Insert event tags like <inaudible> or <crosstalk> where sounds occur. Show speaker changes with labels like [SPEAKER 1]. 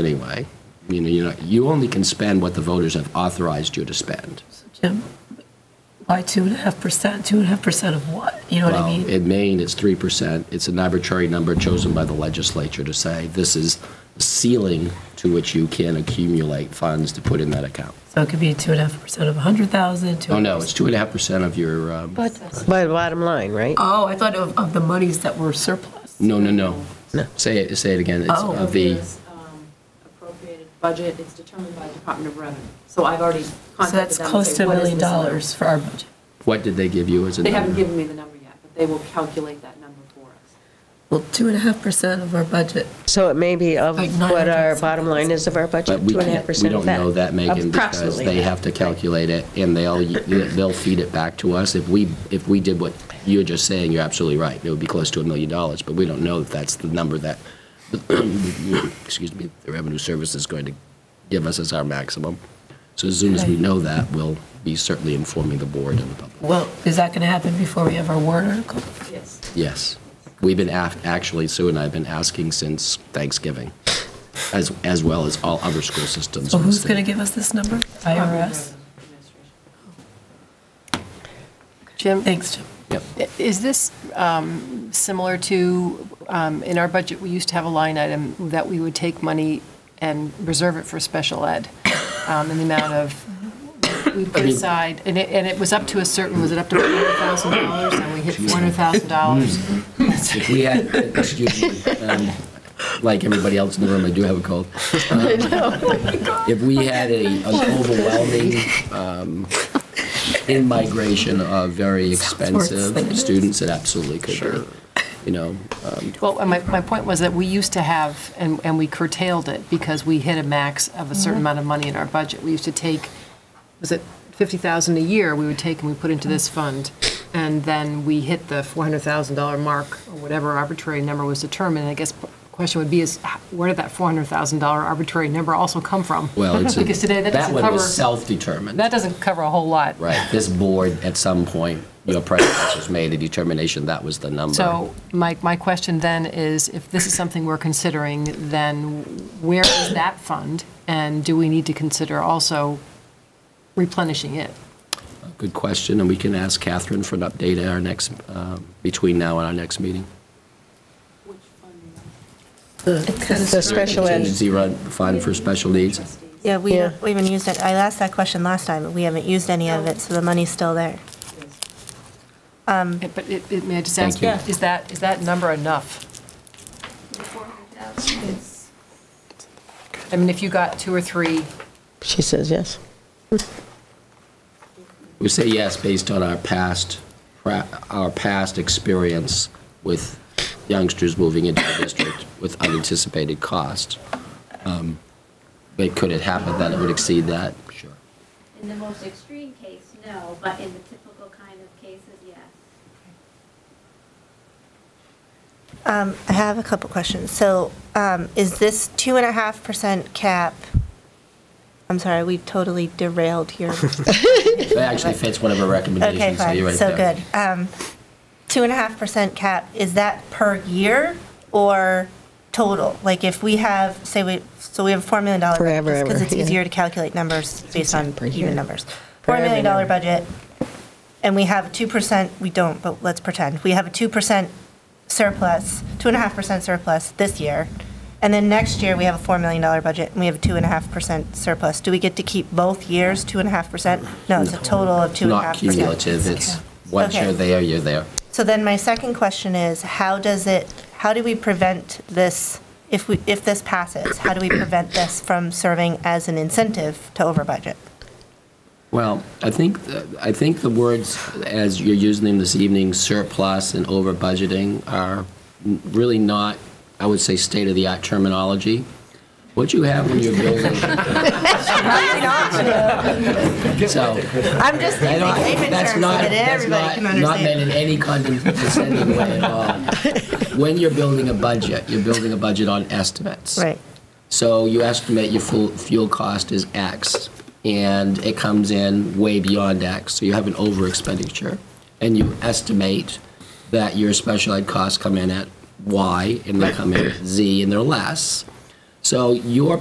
[SPEAKER 1] anyway. You know, you know, you only can spend what the voters have authorized you to spend.
[SPEAKER 2] Jim, why two and a half percent? Two and a half percent of what? You know what I
[SPEAKER 1] Well,
[SPEAKER 2] mean?
[SPEAKER 1] in Maine, it's three percent. It's an arbitrary number chosen by the legislature to say this is the ceiling to which you can accumulate funds to put in that account.
[SPEAKER 2] So it could be two and a half percent of a hundred thousand.
[SPEAKER 1] Oh, no, it's two and a half percent of your, um,
[SPEAKER 3] By the bottom line, right?
[SPEAKER 2] Oh, I thought of, of the monies that were surplus.
[SPEAKER 1] no, no, no. Say it, say it again. It's
[SPEAKER 2] Oh.
[SPEAKER 1] of the,
[SPEAKER 4] This, um, appropriated budget, it's determined by Department of Revenue. So I've already
[SPEAKER 2] So
[SPEAKER 4] contacted
[SPEAKER 2] that's
[SPEAKER 4] them and
[SPEAKER 2] close to
[SPEAKER 4] say,
[SPEAKER 2] a
[SPEAKER 4] what is
[SPEAKER 2] million
[SPEAKER 4] this number?"
[SPEAKER 2] dollars for our budget.
[SPEAKER 1] what did they give you as a
[SPEAKER 4] They haven't
[SPEAKER 1] number?
[SPEAKER 4] given me the number yet, but they will calculate that number for us.
[SPEAKER 2] Well, two and a half percent of our budget.
[SPEAKER 3] So it may be of
[SPEAKER 2] Like nine
[SPEAKER 3] what our
[SPEAKER 2] hundred
[SPEAKER 3] bottom line is of our budget,
[SPEAKER 1] But we
[SPEAKER 3] two and a half
[SPEAKER 1] can't, we
[SPEAKER 3] percent
[SPEAKER 1] don't
[SPEAKER 3] of that.
[SPEAKER 1] know that, Megan, because
[SPEAKER 3] Approximately
[SPEAKER 1] they
[SPEAKER 3] that.
[SPEAKER 1] have to calculate it and they'll, they'll feed it back to us. If we, if we did what you're just saying, you're absolutely right. It would be close to a million dollars, but we don't know if that's the number that, <clears throat> excuse me, the revenue service is going to give us as our maximum. So as soon as we
[SPEAKER 2] Right.
[SPEAKER 1] know that, we'll be certainly informing the board and the public.
[SPEAKER 2] Well, is that going to happen before we have our warrant article?
[SPEAKER 4] Yes.
[SPEAKER 1] Yes. We've been, af- actually, Sue and I have been asking since Thanksgiving, as, as well as all other school systems.
[SPEAKER 2] So
[SPEAKER 1] in the
[SPEAKER 2] who's
[SPEAKER 1] state.
[SPEAKER 2] going to give us this number?
[SPEAKER 4] Department of
[SPEAKER 2] IRS?
[SPEAKER 4] Revenue Administration.
[SPEAKER 5] Jim,
[SPEAKER 2] Thanks, Jim.
[SPEAKER 1] Yep.
[SPEAKER 5] is this um, similar to, um, in our budget, we used to have a line item that we would take money and reserve it for special ed um, in the amount of, we put aside, and it, and it was up to a certain, was it up to $400,000? And we hit $400,000. <laughs>
[SPEAKER 1] If we had, excuse me, um, like everybody else in the room, I do have a
[SPEAKER 5] <laughs>
[SPEAKER 1] cold. Um,
[SPEAKER 5] Oh
[SPEAKER 1] If we had a an overwhelming um, in-migration of very expensive students, it absolutely could be, you know. um,
[SPEAKER 5] Well, and my, my point was that we used to have, and, and we curtailed it because we hit a max of a certain amount of money in our budget. We used to take, was it 50,000 a year we would take and we put into this fund? And then we hit the $400,000 mark or whatever arbitrary number was determined. And I guess the question would be is h- where did that $400,000 arbitrary number also come from?
[SPEAKER 1] Well,
[SPEAKER 5] <laughs>
[SPEAKER 1] it's,
[SPEAKER 5] Because today
[SPEAKER 1] a-
[SPEAKER 5] that
[SPEAKER 1] that
[SPEAKER 5] doesn't
[SPEAKER 1] one
[SPEAKER 5] cover,
[SPEAKER 1] was self-determined.
[SPEAKER 5] that doesn't cover a whole lot.
[SPEAKER 1] Right, this board, at some point, your predecessors made a determination that was the number.
[SPEAKER 5] So my, my question then is, if this is something we're considering, then where is that fund? And do we need to consider also replenishing it?
[SPEAKER 1] Good question, and we can ask Catherine for an update at our next, um, between now and our next meeting.
[SPEAKER 4] Which fund?
[SPEAKER 3] The special ed,
[SPEAKER 1] Contingency run, fund for special needs.
[SPEAKER 4] Trustees.
[SPEAKER 6] Yeah, we,
[SPEAKER 3] Yeah.
[SPEAKER 6] we haven't used it. I asked that question last time. We haven't used any of it, so the money's still there.
[SPEAKER 5] Eh, But it, it- may I just ask,
[SPEAKER 1] Thank you. Yeah.
[SPEAKER 5] is that, is that number enough? I mean, if you got two or three,
[SPEAKER 3] she says yes.
[SPEAKER 1] We say yes based on our past, pra- our past experience with youngsters moving into the district with unanticipated cost. Um, But could it happen that it would exceed that? Sure.
[SPEAKER 7] In the most extreme case, no, but in the typical kind of cases, yes.
[SPEAKER 6] Um, I have a couple questions. So um, is this two and a half percent cap? I'm sorry, we totally
[SPEAKER 3] <laughs>
[SPEAKER 6] derailed here.
[SPEAKER 1] That actually fits one of our
[SPEAKER 6] Okay,
[SPEAKER 1] recommendations, so you're
[SPEAKER 6] fine,
[SPEAKER 1] right
[SPEAKER 6] so
[SPEAKER 1] there.
[SPEAKER 6] good. Um, Two and a half percent cap, is that per year or total? Like if we have, say we, so we have a $4 million. budget,
[SPEAKER 3] Forever,
[SPEAKER 6] Just because
[SPEAKER 3] ever,
[SPEAKER 6] it's
[SPEAKER 3] yeah.
[SPEAKER 6] easier to calculate numbers based on
[SPEAKER 3] Per year.
[SPEAKER 6] even numbers.
[SPEAKER 3] For
[SPEAKER 6] $4
[SPEAKER 3] every
[SPEAKER 6] million dollar
[SPEAKER 3] number.
[SPEAKER 6] budget, and we have 2%, we don't, but let's pretend, we have a 2% surplus, 2.5% surplus this year, and then next year, we have a $4 million dollar budget, and we have a 2.5% surplus. Do we get to keep both years, 2.5%? No, it's a total of 2.5%.
[SPEAKER 1] Not cumulative, it's, once
[SPEAKER 6] Okay.
[SPEAKER 1] you're there, you're there.
[SPEAKER 6] So then my second question is, how does it, how do we prevent this, if we, if this passes, how do we prevent this from serving as an incentive to over budget?
[SPEAKER 1] Well, I think, th- I think the words, as you're using them this evening, surplus and over budgeting, are n- really not, I would say, state-of-the-art terminology. What you have when
[SPEAKER 6] <laughs>
[SPEAKER 1] you're building, so,
[SPEAKER 6] I'm
[SPEAKER 1] I
[SPEAKER 6] just thinking
[SPEAKER 1] don't-
[SPEAKER 6] layman terms
[SPEAKER 1] that's
[SPEAKER 6] so
[SPEAKER 1] not,
[SPEAKER 6] that
[SPEAKER 1] that's
[SPEAKER 6] everybody
[SPEAKER 1] not,
[SPEAKER 6] can
[SPEAKER 1] not meant
[SPEAKER 6] understand.
[SPEAKER 1] in any condescending way at all.
[SPEAKER 6] <laughs>
[SPEAKER 1] When you're building a budget, you're building a budget on estimates.
[SPEAKER 6] Right,
[SPEAKER 1] So you estimate your fuel, fuel cost is X, and it comes in way beyond X, so you have an over expenditure. And you estimate that your special ed costs come in at Y, and they come in at Z, and they're less. So your